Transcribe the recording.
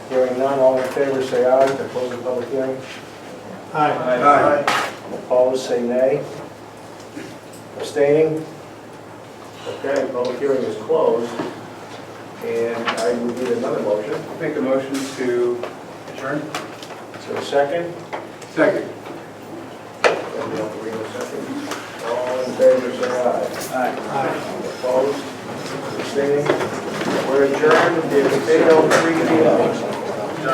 Hearing none, all in favor, say aye to close the public hearing. Aye. Opposed, say nay. Abstaining? Okay, public hearing is closed, and I will need another motion. Make a motion to adjourn? Is there a second? Second. And we don't agree with second. All in favor, say aye. Aye. Opposed, abstaining. We're adjourned, it's 8:03 P M.